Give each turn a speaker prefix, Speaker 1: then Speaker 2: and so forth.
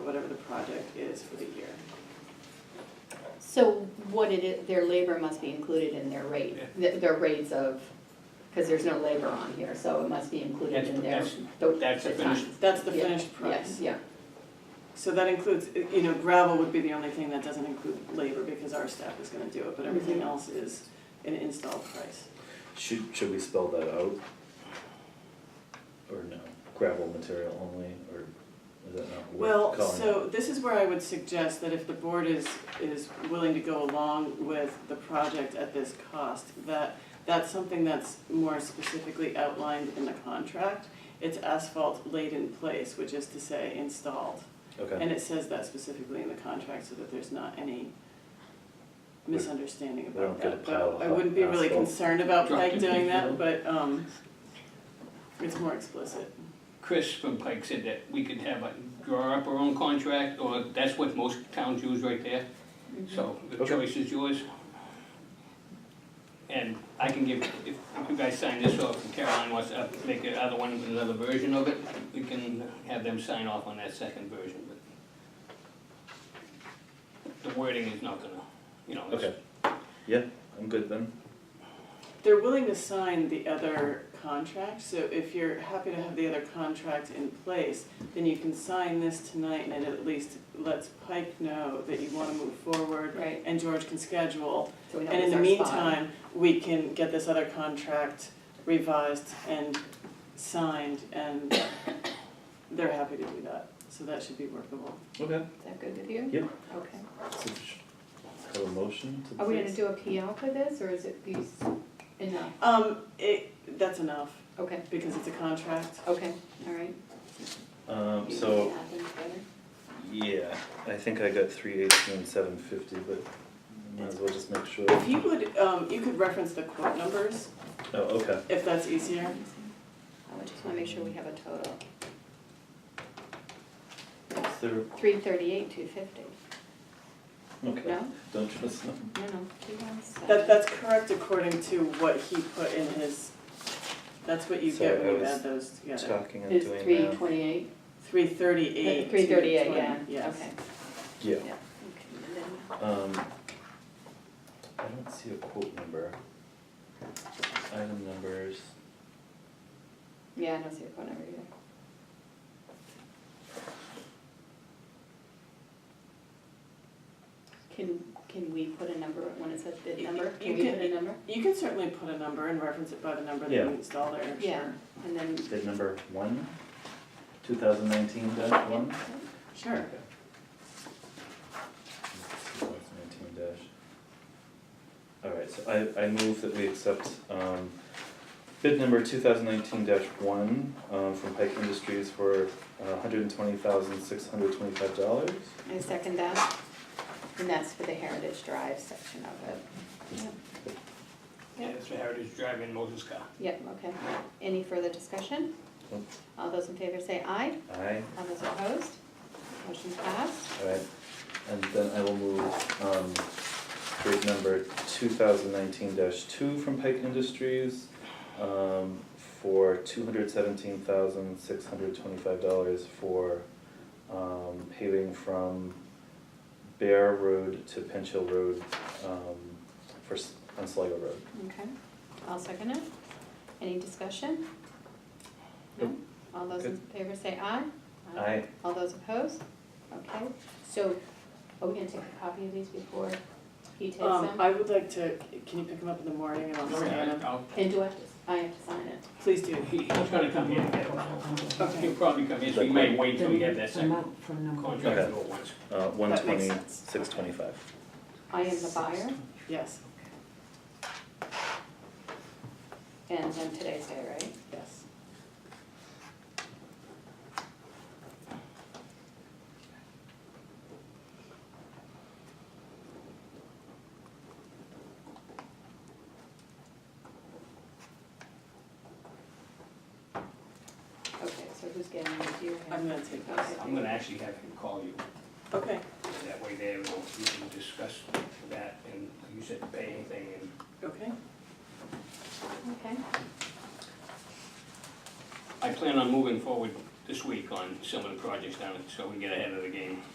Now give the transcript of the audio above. Speaker 1: project is for the year.
Speaker 2: So what it is, their labor must be included in their rate, th- their rates of, because there's no labor on here, so it must be included
Speaker 3: That's-
Speaker 2: in their,
Speaker 3: that's-
Speaker 2: the
Speaker 3: that's
Speaker 2: the
Speaker 3: the finished-
Speaker 2: time.
Speaker 1: That's the
Speaker 2: Yeah,
Speaker 1: finished
Speaker 2: Yes,
Speaker 1: price.
Speaker 2: yeah,
Speaker 1: So that includes, you know, gravel would be the only thing that doesn't include labor because our staff is gonna do it, but everything
Speaker 2: Mhm.
Speaker 1: else is an install price.
Speaker 4: Should, should we spell that out? Or no, gravel material only, or is that not
Speaker 1: Well,
Speaker 4: worth calling
Speaker 1: so this is where I would suggest that if the board is, is willing to go along with the project at this cost, that, that's something that's more specifically outlined in the contract. It's asphalt laid in place, which is to say installed.
Speaker 4: Okay,
Speaker 1: And it says that specifically in the contract so that there's not any
Speaker 4: We-
Speaker 1: misunderstanding
Speaker 4: we don't
Speaker 1: about
Speaker 4: get a
Speaker 1: that.
Speaker 4: pile
Speaker 1: Though
Speaker 4: of
Speaker 1: I wouldn't be really
Speaker 4: asphalt.
Speaker 1: concerned about
Speaker 3: Dropped
Speaker 1: Pike
Speaker 3: in
Speaker 1: doing that,
Speaker 3: people.
Speaker 1: but, um, it's more explicit.
Speaker 3: Chris from Pike said that we could have, a draw up our own contract, or that's what most towns use right there. So the
Speaker 4: Okay.
Speaker 3: choice is yours. And I can give, if you guys sign this, or if Caroline wants to up- make another one, with another version of it, we can have them sign off on that second version, but the wording is not gonna, you know, it's-
Speaker 4: okay, yeah, I'm good then,
Speaker 1: They're willing to sign the other contract, so if you're happy to have the other contract in place, then you can sign this tonight and it at least lets Pike know that you wanna move forward
Speaker 2: right.
Speaker 1: and George can schedule
Speaker 2: So we know
Speaker 1: And in
Speaker 2: it's
Speaker 1: the
Speaker 2: our spot.
Speaker 1: meantime, we can get this other contract revised and signed, and they're happy to do that, so that should be workable.
Speaker 4: okay,
Speaker 2: Is that good with you?
Speaker 4: Yep.
Speaker 2: Okay.
Speaker 4: so we should have a motion to
Speaker 2: Are
Speaker 1: Um,
Speaker 2: we gonna
Speaker 4: please?
Speaker 2: do a PL for this, or is it these enough?
Speaker 1: Um, it, that's enough,
Speaker 2: Okay,
Speaker 1: because it's a contract.
Speaker 2: okay, all right.
Speaker 4: Um,
Speaker 2: You
Speaker 4: so,
Speaker 2: can add them together.
Speaker 4: yeah, I think I got three eighteen, seven fifty, but might as well just make sure,
Speaker 1: If you would, um, you could reference the quote numbers,
Speaker 4: oh, okay,
Speaker 1: if that's easier.
Speaker 2: I just wanna make sure we have a total.
Speaker 4: is there,
Speaker 2: Three thirty-eight, two fifty,
Speaker 4: okay,
Speaker 2: no,
Speaker 4: don't trust them.
Speaker 2: no, no, two one seven.
Speaker 1: That, that's correct according to what he put in his, that's what you get when you add those together.
Speaker 4: Talking and
Speaker 2: Is
Speaker 4: doing
Speaker 2: three
Speaker 4: that,
Speaker 2: twenty-eight?
Speaker 1: Three thirty-eight.
Speaker 2: Three thirty-eight, yeah, okay.
Speaker 1: Yes.
Speaker 4: yeah,
Speaker 2: Yeah, okay, and then-
Speaker 4: Um, I don't see a quote number. Item numbers,
Speaker 2: Yeah, I don't see a phone number either. Can, can we put a number, when it says bid
Speaker 1: You-
Speaker 2: number,
Speaker 1: you
Speaker 2: can we
Speaker 1: can-
Speaker 2: put a number?
Speaker 1: You can certainly put a number and reference it by the number that
Speaker 4: Yeah.
Speaker 1: you installed there, sure.
Speaker 2: Yeah, and then,
Speaker 4: bid number one, two thousand nineteen dash
Speaker 2: yeah,
Speaker 4: one?
Speaker 1: Sure.
Speaker 4: Two thousand nineteen dash. Alright, so I, I move that we accept, um, bid number two thousand nineteen dash one, um, from Pike Industries for uh hundred and twenty thousand, six hundred twenty-five dollars.
Speaker 2: I second that, and that's for the Heritage Drive section of it. Yep.
Speaker 3: yeah,
Speaker 2: Yep,
Speaker 3: it's the Heritage Drive in Moses car.
Speaker 2: Yep, okay, any further discussion?
Speaker 4: Nope.
Speaker 2: All those in favor say aye,
Speaker 4: Aye.
Speaker 2: all those opposed, motion passed.
Speaker 4: Alright, and then I will move, um, bid number two thousand nineteen two from Pike Industries, um, for two hundred seventeen thousand six hundred twenty-five dollars for, um, paving from Bear Road to Pinch Hill Road, um, for, S- on Sligo Road.
Speaker 2: Okay, I'll second it. Any discussion? No?
Speaker 4: Nope.
Speaker 2: All those in favor say aye?
Speaker 4: Aye.
Speaker 2: All those opposed? Okay, so are we gonna take a copy of these before he takes
Speaker 1: Um,
Speaker 2: them?
Speaker 1: I would like to, can you pick them up in the morning and I'll scan them?
Speaker 3: I'll-
Speaker 2: And do I have to, I have to sign it?
Speaker 1: Please do.
Speaker 3: He- He's gonna come here.
Speaker 1: Okay.
Speaker 3: He'll probably come here, so we may wait till we have that
Speaker 5: From
Speaker 3: second
Speaker 5: up from number one.
Speaker 3: contract to go once.
Speaker 4: Uh, one
Speaker 1: That makes
Speaker 4: twenty,
Speaker 1: sense.
Speaker 4: six twenty-five.
Speaker 2: I am the buyer
Speaker 1: Yes,
Speaker 2: and then today's day, right?
Speaker 1: yes.
Speaker 2: Okay, so who's getting it? Do you have?
Speaker 1: I'm gonna take
Speaker 2: Okay,
Speaker 1: those.
Speaker 3: I'm gonna actually have him call you,
Speaker 1: Okay,
Speaker 3: that way there, we'll, we can discuss that, and like you said pay anything, and
Speaker 1: okay.
Speaker 2: Okay,
Speaker 3: I plan on moving forward this week on some of the projects down, so we get ahead of the game.